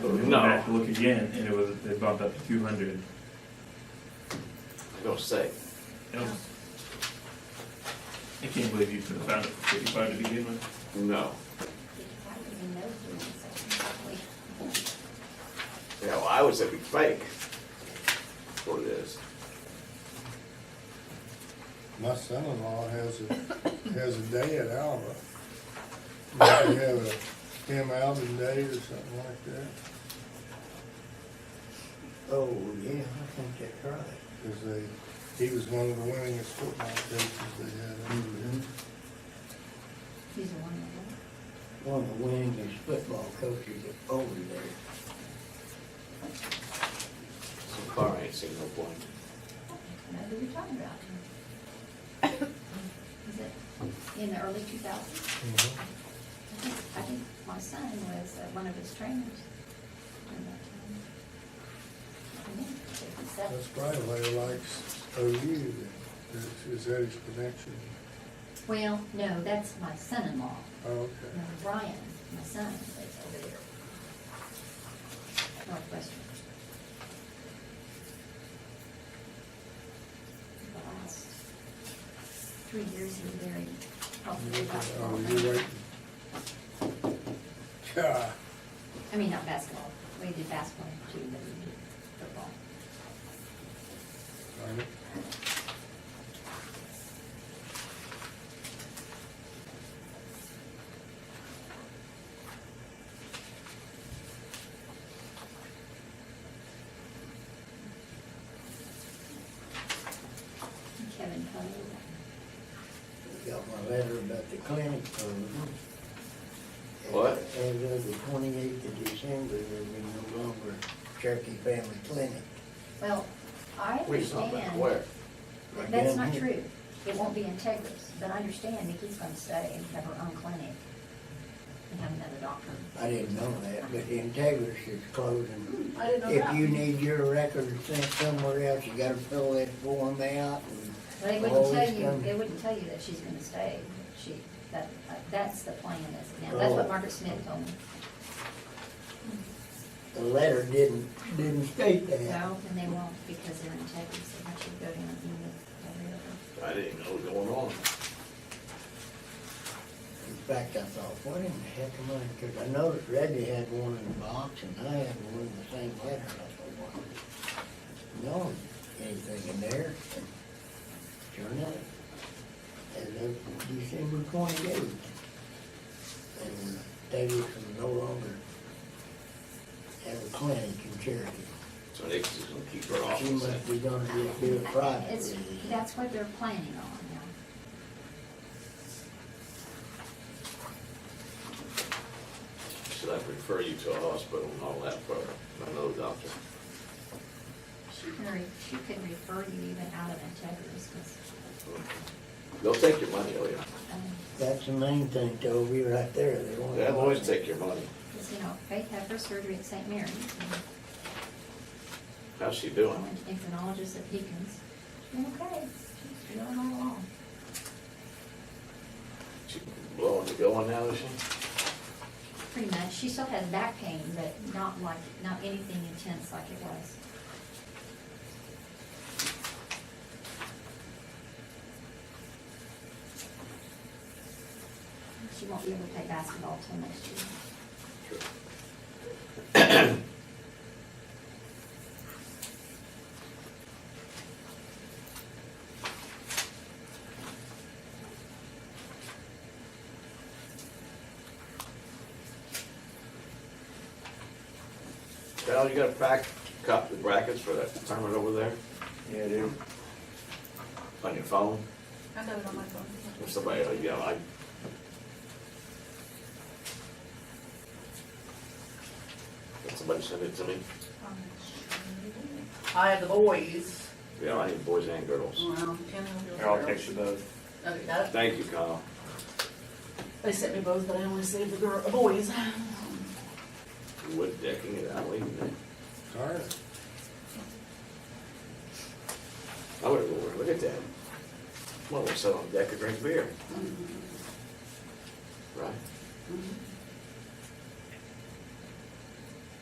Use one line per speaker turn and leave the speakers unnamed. But we went
No.
back to look again, and it was, they bumped up to two hundred.
I gotta say,
I can't believe you could've found it for fifty-five to begin with.
no. You know, I was a big fake for this.
My son-in-law has a, has a day at Alba. They have a Tim Alvin Day or something like that,
Oh, yeah, I think that's right.
because they, he was one of the winningest football coaches they had.
Mm-hmm.
He's a wonderful.
One of the winningest football coaches over there.
So far, I ain't seen no point.
Now, who we talking about? Is it in the early two thousands? I think, I think my son was uh, one of his trainers. during that time. I think he was seven.
That's probably why he likes OU, that- is that his connection?
Well, no, that's my son-in-law,
Oh, okay.
No, Brian, my son, lives over there. Northwestern. The last three years he was very healthy about
Oh, you're waiting. God,
I mean, not basketball, we did basketball too, but we did football.
darn it.
Kevin Cody,
Got my letter about the clinic program.
What?
As of the twenty-eighth of December, there'll be no longer Cherokee Family Clinic.
well, I
We just not been
understand.
aware.
But That's not
Yeah.
true. It won't be Integris, but I understand Nikki's gonna stay and have her own clinic and have another doctor.
I didn't know that, but the Integris is closing.
I didn't know
If
that.
you need your record sent somewhere else, you gotta fill that form out and.
They
all
wouldn't
this
tell you,
kind
they
of-
wouldn't tell you that she's gonna stay. She, that, uh, that's the plan as of now. That's what
Oh.
Margaret Smith told me.
The letter didn't, didn't state that.
No, and they won't because they're Integris. They want you to go down and meet every other.
I didn't know what was going on.
In fact, I thought, what in the heck am I, because I noticed Reggie had one in the box and I had one in the same letter. I thought, what? No, anything in there? And Sure enough. As of December twenty-eighth. And Davis was no longer have a clinic in Cherokee.
So they just gonna keep her off.
She
and
must
say,
be gonna just do it private.
It's, that's what they're planning on now.
Should I refer you to a hospital and all that for another doctor?
She can, re- she can refer you even out of Integris because,
They'll take your money, oh yeah.
um,
That's the main thing, Toby, right there. They won't-
They'll always take your money.
Because, you know, Faith had her surgery at St. Mary's, and
How's she
I
doing?
went to endocrinologist at Deacon's. She's okay, she's doing all along.
She blowing the going now, is she?
Pretty much, she still has back pain, but not like, not anything intense like it was. She won't be able to play basketball till next year.
Sure. Val, you got a pack, copy the brackets for that tournament over there
Yeah, they're
on your phone?
I got it on my phone.
Or somebody, uh, yeah, I, Did somebody send it to me?
I have the boys.
Yeah, I need boys and girls.
Well, Ken
Here, I'll picture those.
Okay, got it.
Thank you, Kyle.
They sent me both, but I only saved the girl, the boys.
Wood decking it out, leaving it.
Darn it.
I would have, look at that. Well, we'll sit on deck and drink beer. Right?
Mhm.